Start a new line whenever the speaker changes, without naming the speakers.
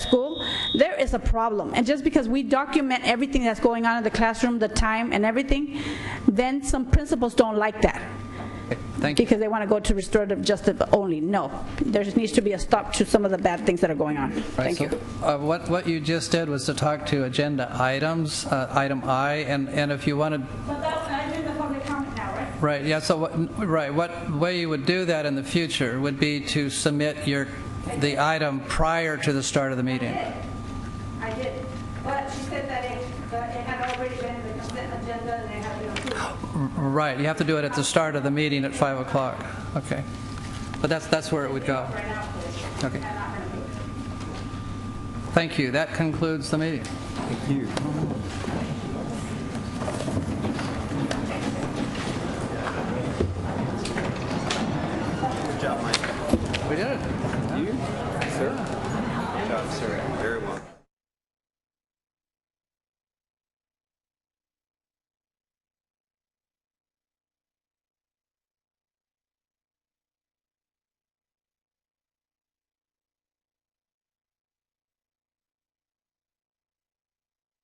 there is a problem. And just because we document everything that's going on in the classroom, the time and everything, then some principals don't like that
Thank you.
because they want to go to restorative justice only. No, there just needs to be a stop to some of the bad things that are going on.
Right,
Thank
so,
you.
uh, What, what you just did was to talk to agenda items, uh, item I, and, and if you wanted,
But that's, I'm in the public comment now, right?
right, yeah, so, what- right, what way you would do that in the future would be to submit your, the item prior to the start of the meeting.
I did, but she said that it, that it had already been in the consent agenda and it had been approved.
Right, you have to do it at the start of the meeting at 5 o'clock, okay. But that's, that's where it would go. Okay. Thank you, that concludes the meeting.
Good job, Mike.
We did it.
You, sir. Good job, sir. Very